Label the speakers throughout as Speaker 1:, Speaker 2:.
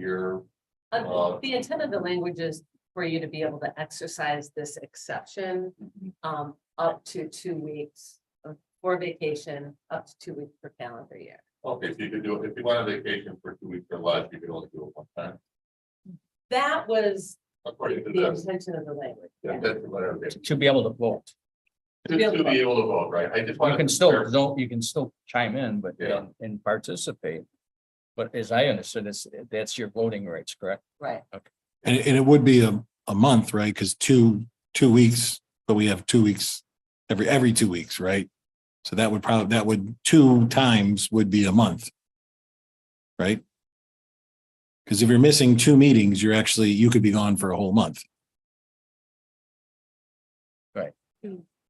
Speaker 1: your,
Speaker 2: Uh,
Speaker 1: Uh,
Speaker 2: The intent of the language is for you to be able to exercise this exception
Speaker 1: Mm-hmm.
Speaker 2: um up to two weeks of- for vacation, up to two weeks per calendar year.
Speaker 1: okay, so you could do, it Oh, if you want a vacation for two weeks or less, you could only do it one time.
Speaker 2: That was
Speaker 1: According to
Speaker 2: the
Speaker 1: this,
Speaker 2: intention of the language.
Speaker 1: Yeah, that's the letter. of it.
Speaker 3: to- to be able to vote.
Speaker 1: Just to be able to vote, right? I just want.
Speaker 3: You can still, don't, you can still chime in, but
Speaker 1: Yeah.
Speaker 3: and- and participate. But as I understood, it's, that's your voting rights, correct?
Speaker 2: Right,
Speaker 4: And, and it would be a, a month, right? Because two, two weeks, but we have two weeks every, every two weeks, right? So that would probably, that would, two times would be a month. Right? Because if you're missing two meetings, you're actually, you could be gone for a whole month.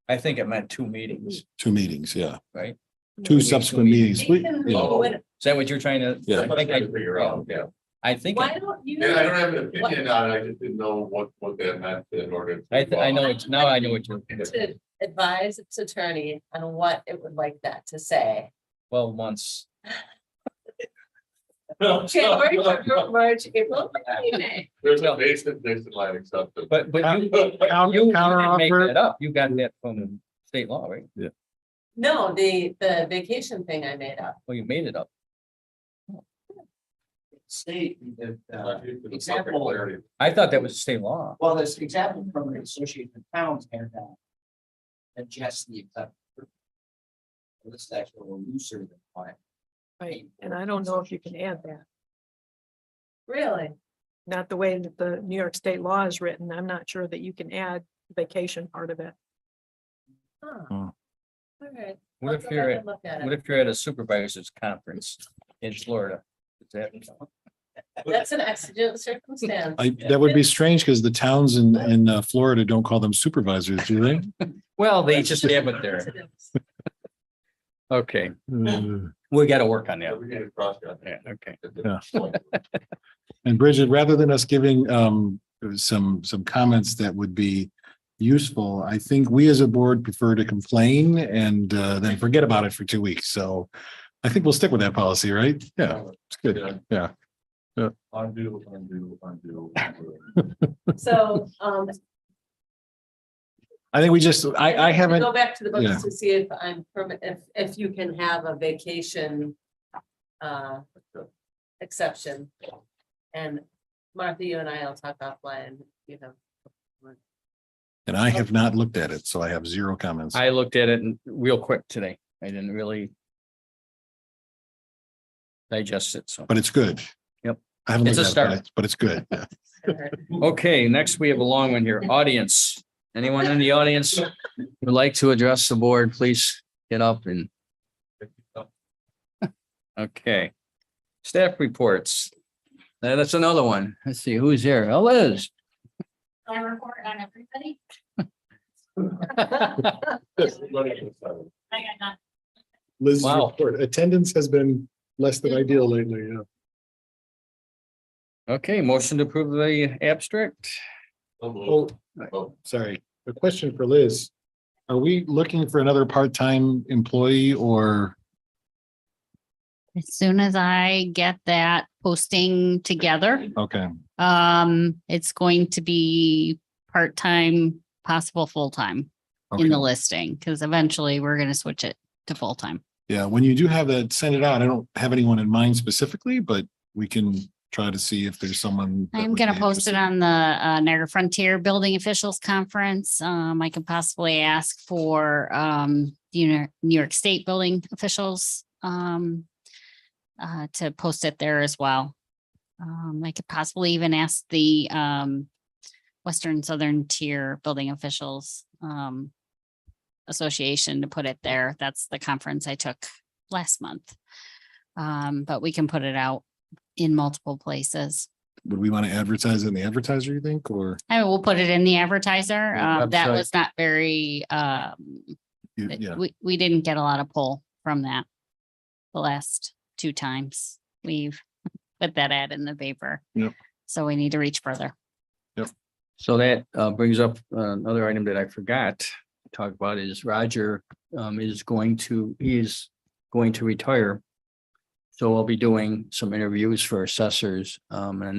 Speaker 3: I think it meant two meetings. Is
Speaker 4: Two meetings, yeah.
Speaker 3: Right.
Speaker 4: Two subsequent meetings.
Speaker 2: We
Speaker 4: We-
Speaker 2: can
Speaker 4: yeah.
Speaker 2: go in-
Speaker 3: that what you're trying to?
Speaker 4: Yeah.
Speaker 3: I think I-
Speaker 1: Figure out, yeah.
Speaker 3: I think,
Speaker 2: Why
Speaker 3: I
Speaker 2: don't you?
Speaker 1: Yeah, I don't have an opinion on it. I just didn't know what, what that meant in order. to-
Speaker 3: th- I know, it's now I know what you're,
Speaker 2: To advise its attorney on what it would like that to say.
Speaker 3: twelve months.
Speaker 2: January, February, March, April, May.
Speaker 1: There's a basic, basic line acceptance.
Speaker 3: But, but you, but
Speaker 5: Counter-
Speaker 3: you didn't make
Speaker 5: counteroffer.
Speaker 3: that up. You got that from state law, right?
Speaker 2: No, the the vacation thing I made up.
Speaker 3: Well, you made it up.
Speaker 6: state that, uh, Example.
Speaker 1: Example.
Speaker 3: I thought that was state law.
Speaker 6: well, this example from the Association of Towns and that. Adjust the. exact- This is actually a little looser than mine.
Speaker 7: Right, and I don't know if you can add that,
Speaker 2: Really?
Speaker 7: not the way that the New York state law is written. I'm not sure that you can add vacation part of it.
Speaker 2: Huh.
Speaker 4: Hmm.
Speaker 2: All right.
Speaker 3: What
Speaker 2: I'll
Speaker 3: if
Speaker 2: go
Speaker 3: you're,
Speaker 2: back
Speaker 3: at
Speaker 2: and look at
Speaker 3: what
Speaker 2: it.
Speaker 3: if you're at a supervisor's conference in Florida? Is that?
Speaker 2: That's an accident circumstance.
Speaker 4: I, that would be strange because the towns in, in uh, Florida don't call them supervisors, do they?
Speaker 3: Well, they just have it there. Okay,
Speaker 4: Uh,
Speaker 3: we gotta work on that.
Speaker 1: We need to cross that.
Speaker 3: Yeah, okay.
Speaker 4: And Bridget, rather than us giving um some some comments that would be useful, I think we as a board prefer to complain and uh then forget about it for two weeks. So I think we'll stick with that policy, right? Yeah, it's good. Yeah.
Speaker 1: Undo, undo, undo. undo.
Speaker 2: So, um.
Speaker 4: I think we just, I I
Speaker 2: have to
Speaker 4: haven't,
Speaker 2: Go back to the
Speaker 4: yeah.
Speaker 2: books to see if I'm, permit- if, if you can have a vacation. Uh, exception. And Martha, you and I will talk offline, you know.
Speaker 4: and I have not looked at it, so I have zero comments.
Speaker 3: I looked at it and- real quick today. I didn't really digest it, so.
Speaker 4: But it's good.
Speaker 3: Yep.
Speaker 4: I haven't
Speaker 3: It's
Speaker 4: looked
Speaker 3: a
Speaker 4: at it, but
Speaker 3: start.
Speaker 4: it's- but it's good. Yeah.
Speaker 3: Okay, next we have a long one here. Audience. Anyone in the audience would like to address the board, please get up and, okay. Staff reports. Now, That's another one. Let's see, who's here? Oh, Liz.
Speaker 8: I report on everybody.
Speaker 1: This is what it is, uh,
Speaker 8: I got not,
Speaker 4: Liz's
Speaker 3: Wow.
Speaker 4: report, attendance has been less than ideal lately, yeah.
Speaker 3: Okay, motion to approve the abstract.
Speaker 1: so
Speaker 4: Oh,
Speaker 1: moved. Oh,
Speaker 4: sorry, a question for Liz. Are we looking for another part-time employee or,
Speaker 8: as soon as I get that posting together,
Speaker 4: okay,
Speaker 8: um, it's going to be part-time, possible full-time in
Speaker 4: okay.
Speaker 8: the listing, because eventually we're gonna switch it to full-time.
Speaker 4: Yeah, when you do have that, send it out. I don't have anyone in mind specifically, but we can try to see if there's someone. that
Speaker 8: I'm
Speaker 4: would
Speaker 8: gonna
Speaker 4: be
Speaker 8: post it
Speaker 4: interested.
Speaker 8: on the uh, Niagara Frontier Building Officials Conference. Um, I can possibly ask for, um, you know, New York State Building Officials, um, uh, to post it there as well. Um, I could possibly even ask the, um, Western Southern Tier Building Officials, um, Association to put it there. That's the conference I took last month. Um, but we can put it out in multiple places.
Speaker 4: Would we want to advertise it in the advertiser, you think, or
Speaker 8: I will put it in the advertiser.
Speaker 3: Yeah,
Speaker 8: Um, that
Speaker 3: website.
Speaker 8: was not very, um,
Speaker 4: you-
Speaker 8: it-
Speaker 4: yeah,
Speaker 8: we, we didn't get a lot of pull from that. The last two times we've put that ad in the paper.
Speaker 4: Yep.
Speaker 8: So we need to reach further.
Speaker 3: So that uh, brings up uh, another item that I forgot to talk about is Roger um, is going to, he's going to retire So I'll be doing some interviews for assessors, um, and